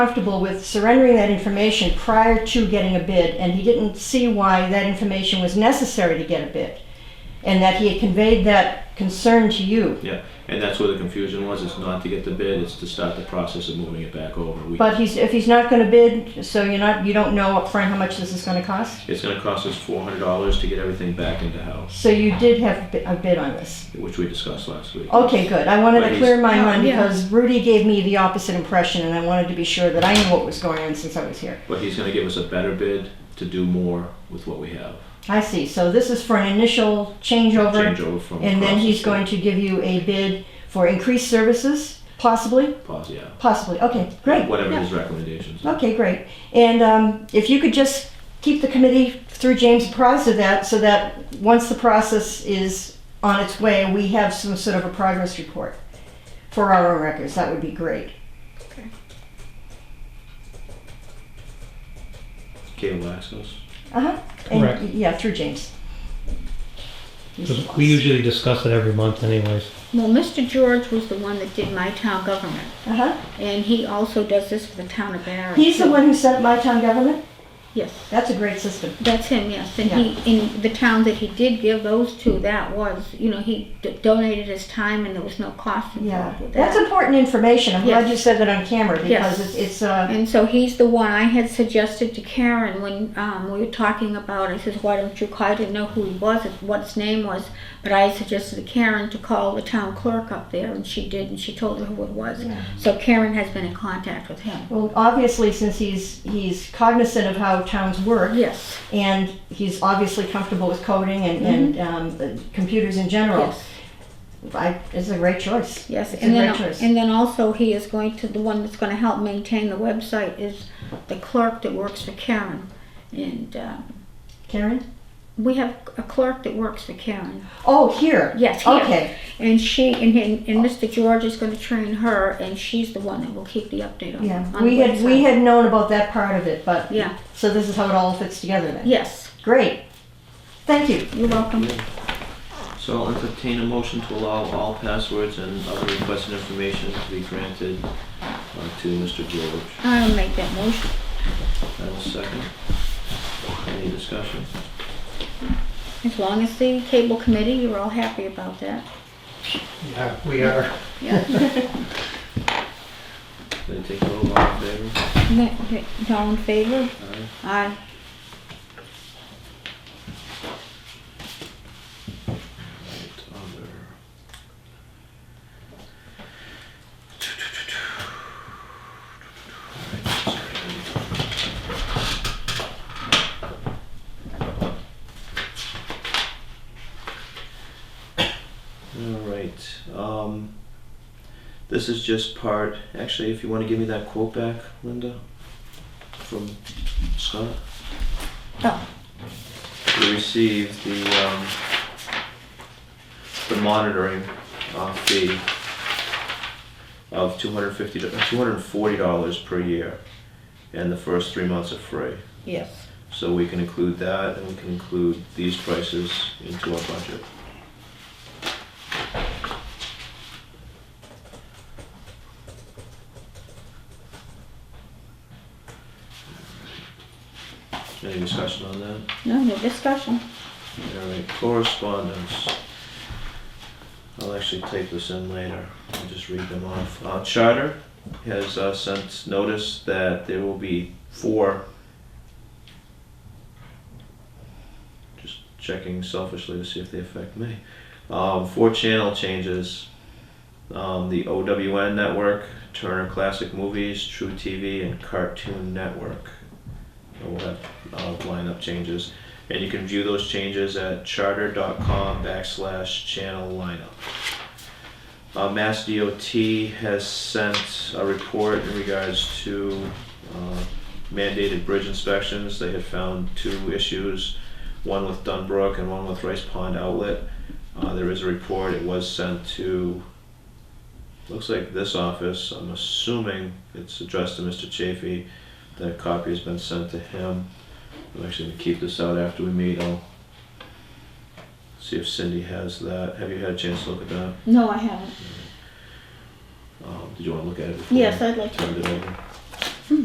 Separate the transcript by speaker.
Speaker 1: comfortable with surrendering that information prior to getting a bid, and he didn't see why that information was necessary to get a bid, and that he had conveyed that concern to you.
Speaker 2: Yeah, and that's where the confusion was, it's not to get the bid, it's to start the process of moving it back over. We-
Speaker 1: But he's, if he's not gonna bid, so you're not, you don't know upfront how much this is gonna cost?
Speaker 2: It's gonna cost us four hundred dollars to get everything back into house,
Speaker 1: So you did have a bi- a bid on this?
Speaker 2: which we discussed last week.
Speaker 1: Okay, good. I wanted to
Speaker 2: Ladies.
Speaker 1: clear my
Speaker 3: Oh,
Speaker 1: mind
Speaker 3: yeah.
Speaker 1: because Rudy gave me the opposite impression, and I wanted to be sure that I knew what was going on since I was here.
Speaker 2: But he's gonna give us a better bid to do more with what we have,
Speaker 1: I see. So this is for an initial changeover,
Speaker 2: change over from.
Speaker 1: and then
Speaker 2: across the
Speaker 1: he's
Speaker 2: street.
Speaker 1: going to give you a bid for increased services, possibly?
Speaker 2: Pause, yeah.
Speaker 1: Possibly. Okay, great.
Speaker 2: Whatever
Speaker 1: Yeah.
Speaker 2: his recommendations are.
Speaker 1: Okay, great. And um, if you could just keep the committee through James apprised of that, so that once the process is on its way, we have some sort of a progress report for our own records, that would be great.
Speaker 2: Cable access.
Speaker 1: Uh-huh. And,
Speaker 4: Correct.
Speaker 1: Yeah, through James. He's the
Speaker 4: 'Cause We
Speaker 1: boss.
Speaker 4: usually discuss it every month anyways.
Speaker 3: Well, Mr. George was the one that did my town government,
Speaker 1: Uh-huh.
Speaker 3: and he also does this for the town of Barry.
Speaker 1: He's the
Speaker 3: too.
Speaker 1: one who set up my town government?
Speaker 3: Yes,
Speaker 1: That's a great system.
Speaker 3: that's him. Yes, and he in the town that he did give those to. That was, you know, he d- donated his time, and there was no cost
Speaker 1: Yeah,
Speaker 3: involved with that.
Speaker 1: that's important information. I'm glad
Speaker 3: Yes.
Speaker 1: you said that on camera
Speaker 3: Yes.
Speaker 1: because it's, it's, uh,
Speaker 3: And so he's the one I had suggested to Karen when um, we were talking about. I says, "Why don't you call?" I didn't know who he was, what his name was, but I suggested to Karen to call the town clerk up there, and she did, and she told her who it was. So Karen has been in contact with him.
Speaker 1: well, obviously, since he's, he's cognizant of how towns work,
Speaker 3: Yes.
Speaker 1: and he's obviously comfortable with coding and, and um, the computers in general.
Speaker 3: Mm-hmm. Yes.
Speaker 1: I, it's a great choice.
Speaker 3: Yes,
Speaker 1: It's
Speaker 3: and
Speaker 1: a
Speaker 3: then,
Speaker 1: great choice.
Speaker 3: and then also he is going to, the one that's gonna help maintain the website is the clerk that works for Karen. And, uh,
Speaker 1: Karen?
Speaker 3: we have a clerk that works for Karen.
Speaker 1: Oh, here.
Speaker 3: Yes, here.
Speaker 1: Okay,
Speaker 3: And she, and, and and Mr. George is gonna train her, and she's the one that will keep the update on, on the
Speaker 1: yeah. We had, we
Speaker 3: website.
Speaker 1: had known about that part of it, but.
Speaker 3: Yeah.
Speaker 1: So this is how it all fits together then.
Speaker 3: Yes,
Speaker 1: Great. Thank you.
Speaker 3: you're welcome.
Speaker 2: So I'll entertain a motion to allow all passwords and other requested information to be granted uh, to Mr. George.
Speaker 3: I'll make that motion.
Speaker 2: I will second. Any discussion?
Speaker 3: As long as the cable committee, you're all happy about that.
Speaker 4: Yeah, we are.
Speaker 2: Then take a vote, all in favor?
Speaker 3: Okay, All in favor?
Speaker 2: Aye.
Speaker 3: Aye.
Speaker 2: Right, other. Alright, sorry. All right, um, this is just part, actually, if you wanna give me that quote back, Linda, from Scott.
Speaker 3: Oh.
Speaker 2: We received the, um, the monitoring, uh, fee of two hundred fifty, two hundred and forty dollars per year, and the first three months are free.
Speaker 3: Yes.
Speaker 2: So we can include that, and we can include these prices into our budget. Any discussion on that?
Speaker 3: No, no discussion.
Speaker 2: All right, correspondence. I'll actually take this in later, I'll just read them off. Uh, Charter has uh, sent notice that there will be four. Just checking selfishly to see if they affect me. Um, four channel changes. Um, the OWN network, Turner Classic Movies, True TV, and Cartoon Network. So We'll have uh, lineup changes. And you can view those changes at charter.com backslash channel lineup. Uh, Mass DOT has sent a report in regards to uh, mandated bridge inspections. They had found two issues, one with Dunbrook and one with Rice Pond Outlet. Uh, there is a report, it was sent to, looks like this office. I'm assuming it's addressed to Mr. Chafee. That copy has been sent to him. I'm actually gonna keep this out after we meet, I'll see if Cindy has that. Have you had a chance to look at that?
Speaker 3: No, I haven't.
Speaker 2: Um, did you wanna look at it before?
Speaker 3: Yes, I'd like to.
Speaker 2: Turned it over.